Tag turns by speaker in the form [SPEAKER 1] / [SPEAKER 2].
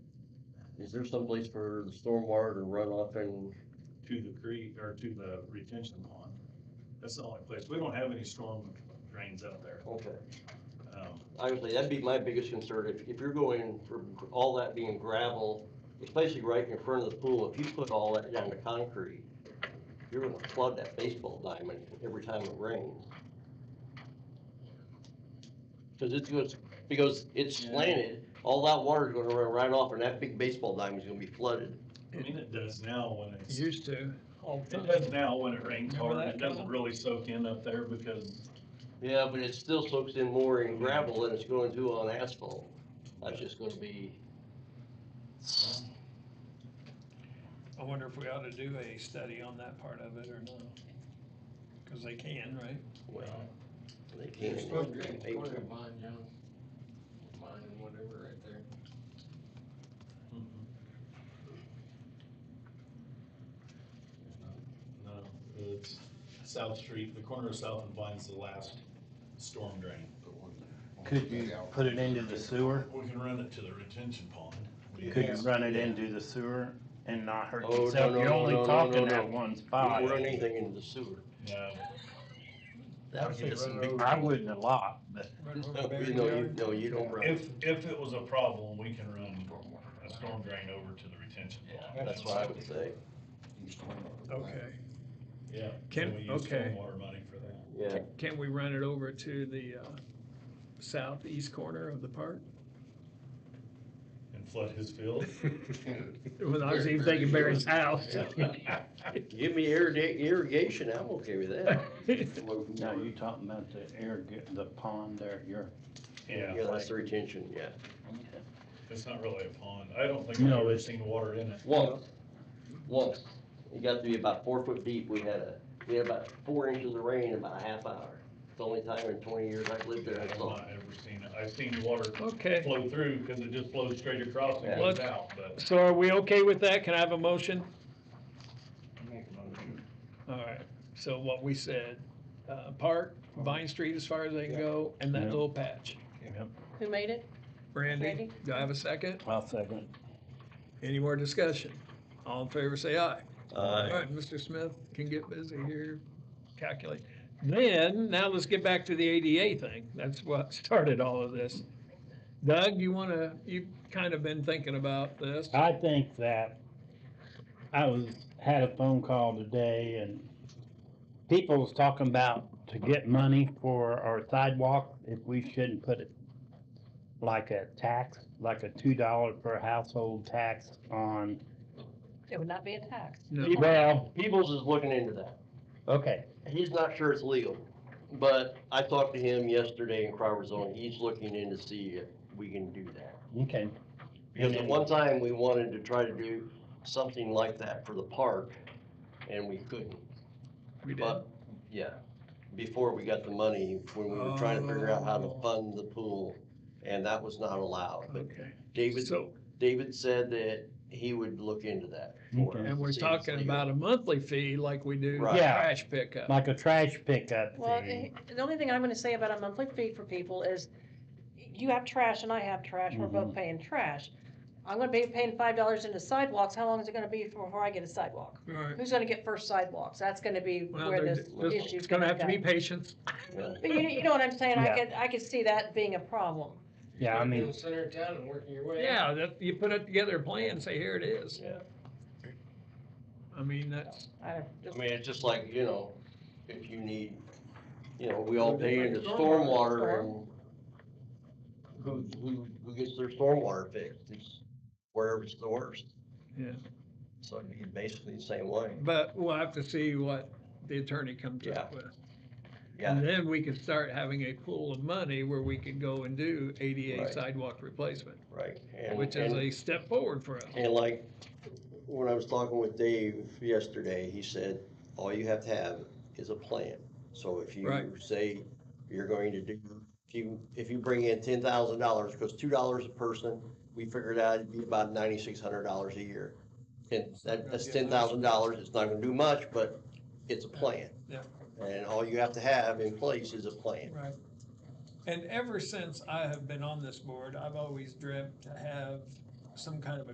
[SPEAKER 1] Is there someplace for the stormwater to run off and,
[SPEAKER 2] to the creek, or to the retention pond. That's the only place, we don't have any storm drains out there.
[SPEAKER 1] okay.
[SPEAKER 2] Um,
[SPEAKER 1] Honestly, that'd be my biggest concern, if, if you're going for all that being gravel, it's basically right in front of the pool, if you put all that down to concrete, you're gonna flood that baseball diamond every time it rains. Cause it's, goes- because it's
[SPEAKER 2] Yeah.
[SPEAKER 1] slanted, all that water's gonna run right off, and that big baseball diamond's gonna be flooded.
[SPEAKER 2] I mean, it does now when it's, it
[SPEAKER 3] Used to, all the
[SPEAKER 2] does
[SPEAKER 3] time.
[SPEAKER 2] now when it rains
[SPEAKER 3] Remember
[SPEAKER 2] hard,
[SPEAKER 3] that,
[SPEAKER 2] it doesn't
[SPEAKER 3] Kyle?
[SPEAKER 2] really soak in up there because,
[SPEAKER 1] Yeah, but it still soaks in more in gravel than it's going to on asphalt. That's just gonna be,
[SPEAKER 3] I wonder if we ought to do a study on that part of it or no? Because they can, right?
[SPEAKER 1] well, they can't.
[SPEAKER 4] You're supposed to get a corner of mine, John. Mine and whatever right there.
[SPEAKER 2] mm,
[SPEAKER 4] There's not-
[SPEAKER 2] no, it's South Street, the corner of South and Vine's the last storm drain.
[SPEAKER 4] but one-
[SPEAKER 5] Could you put it into the sewer?
[SPEAKER 2] We can run it to the retention pond. We
[SPEAKER 5] Could you
[SPEAKER 2] have-
[SPEAKER 5] run it into the sewer and not hurt
[SPEAKER 1] Oh, no,
[SPEAKER 5] yourself?
[SPEAKER 1] no,
[SPEAKER 5] You're
[SPEAKER 1] no,
[SPEAKER 5] only
[SPEAKER 1] no, no, no,
[SPEAKER 5] talking that
[SPEAKER 1] no.
[SPEAKER 5] one
[SPEAKER 1] We
[SPEAKER 5] spot.
[SPEAKER 1] can run anything into the sewer.
[SPEAKER 2] No,
[SPEAKER 1] That would get us in big.
[SPEAKER 5] I wouldn't a lot, but
[SPEAKER 3] Right over
[SPEAKER 1] No,
[SPEAKER 3] there.
[SPEAKER 1] you- no, you, no, you don't run.
[SPEAKER 2] if, if it was a problem, we can run a storm drain over to the retention pond.
[SPEAKER 4] Yeah.
[SPEAKER 1] That's what I would say.
[SPEAKER 4] You storm over the back.
[SPEAKER 3] Okay,
[SPEAKER 2] Yeah.
[SPEAKER 3] Can-
[SPEAKER 2] and we use
[SPEAKER 3] okay.
[SPEAKER 2] Stormwater money for that.
[SPEAKER 1] Yeah.
[SPEAKER 3] can we run it over to the uh, southeast corner of the park?
[SPEAKER 2] And flood his field.
[SPEAKER 3] When I was even thinking Barry's house.
[SPEAKER 1] Give me irrigate, irrigation, I'm okay with that.
[SPEAKER 3] Floating
[SPEAKER 5] now you're talking about the air, the pond there, you're.
[SPEAKER 2] Yeah,
[SPEAKER 1] Yeah, that's the retention, yeah.
[SPEAKER 2] it's not really a pond. I don't think I've
[SPEAKER 5] No,
[SPEAKER 2] ever
[SPEAKER 5] it's-
[SPEAKER 2] seen water in it.
[SPEAKER 1] Once, once, it got to be about four foot deep, we had a, we had about four inches of rain in about a half hour. It's the only time in twenty years I've lived there, I
[SPEAKER 2] I've
[SPEAKER 1] saw.
[SPEAKER 2] not ever seen it. I've seen water
[SPEAKER 3] Okay.
[SPEAKER 2] flow through because it just flows straight across
[SPEAKER 1] Yeah.
[SPEAKER 2] and goes out, but.
[SPEAKER 3] So are we okay with that? Can I have a motion?
[SPEAKER 2] Well,
[SPEAKER 3] All right, so what we said, uh, Park, Vine Street as far as they can go, and that
[SPEAKER 5] Yeah.
[SPEAKER 3] little patch.
[SPEAKER 6] Who made it?
[SPEAKER 3] Randy,
[SPEAKER 6] Randy?
[SPEAKER 3] do I have a second?
[SPEAKER 5] I'll second.
[SPEAKER 3] Any more discussion? All in favor, say aye. All
[SPEAKER 1] Uh,
[SPEAKER 3] right, Mr. Smith can get busy here, calculate. Then, now let's get back to the ADA thing. That's what started all of this. Doug, you wanna, you've kind of been thinking about this.
[SPEAKER 5] I think that I was, had a phone call today and people was talking about to get money for our sidewalk, if we shouldn't put it like a tax, like a two dollar per household tax on,
[SPEAKER 6] It would not be a tax.
[SPEAKER 3] No.
[SPEAKER 5] well,
[SPEAKER 1] Peoples is looking into that.
[SPEAKER 5] okay,
[SPEAKER 1] He's not sure it's legal, but I talked to him yesterday in Crowder Zone. He's looking in to see if we can do that.
[SPEAKER 5] okay.
[SPEAKER 1] Because at one time, we wanted to try to do something like that for the park, and we couldn't.
[SPEAKER 3] We did.
[SPEAKER 1] But, yeah, before we got the money, when we were trying to figure out how
[SPEAKER 3] Oh.
[SPEAKER 1] to fund the pool, and that was not allowed. But
[SPEAKER 3] Okay,
[SPEAKER 1] David,
[SPEAKER 3] so,
[SPEAKER 1] David said that he would look into that for us.
[SPEAKER 5] Okay.
[SPEAKER 3] and we're
[SPEAKER 1] see if it's
[SPEAKER 3] talking
[SPEAKER 1] legal.
[SPEAKER 3] about a monthly fee like we do
[SPEAKER 1] Right.
[SPEAKER 5] Yeah.
[SPEAKER 3] trash pickup.
[SPEAKER 5] Like a trash pickup
[SPEAKER 6] Well,
[SPEAKER 5] fee.
[SPEAKER 6] the the only thing I'm gonna say about a monthly fee for people is, you have trash and I have trash, we're both
[SPEAKER 3] Mm-hmm.
[SPEAKER 5] Mhm.
[SPEAKER 6] paying trash. I'm gonna be paying five dollars into sidewalks, how long is it gonna be before I get a sidewalk?
[SPEAKER 3] All right.
[SPEAKER 6] Who's gonna get first sidewalks? That's gonna be
[SPEAKER 3] Well,
[SPEAKER 6] where
[SPEAKER 3] there-
[SPEAKER 6] this
[SPEAKER 3] there's-
[SPEAKER 6] issue.
[SPEAKER 3] It's gonna have to be patience.
[SPEAKER 1] Yeah.
[SPEAKER 6] But you, you know what I'm saying, I
[SPEAKER 5] Yeah.
[SPEAKER 6] could, I could see that being a problem.
[SPEAKER 5] Yeah, I
[SPEAKER 4] You're in
[SPEAKER 5] mean,
[SPEAKER 4] the center of town and working your way. out.
[SPEAKER 3] Yeah, that, you put it together, a plan, say, here it is. I mean, that's,
[SPEAKER 6] I
[SPEAKER 1] I mean, it's just like, you know, if you need, you know, we all pay into stormwater and who, who, who gets their stormwater fixed, it's wherever it's the worst.
[SPEAKER 3] yeah.
[SPEAKER 1] So it'd be basically the same way,
[SPEAKER 3] But we'll have to see what the attorney comes up
[SPEAKER 1] Yeah.
[SPEAKER 3] with. And
[SPEAKER 1] yeah.
[SPEAKER 3] then we can start having a pool of money where we can go and do ADA
[SPEAKER 1] Right.
[SPEAKER 3] sidewalk replacement,
[SPEAKER 1] Right. And-
[SPEAKER 3] which is
[SPEAKER 1] and-
[SPEAKER 3] a step forward for us.
[SPEAKER 1] And like, when I was talking with Dave yesterday, he said, all you have to have is a plan. So if you
[SPEAKER 3] Right.
[SPEAKER 1] say you're going to do, if you, if you bring in ten thousand dollars, because two dollars a person, we figured out it'd be about ninety-six hundred dollars a year. And that, that's ten thousand dollars, it's not gonna do much, but it's a plan.
[SPEAKER 3] Yeah.
[SPEAKER 1] And all you have to have in place is a plan.
[SPEAKER 3] Right. And ever since I have been on this board, I've always dreamt to have some kind of a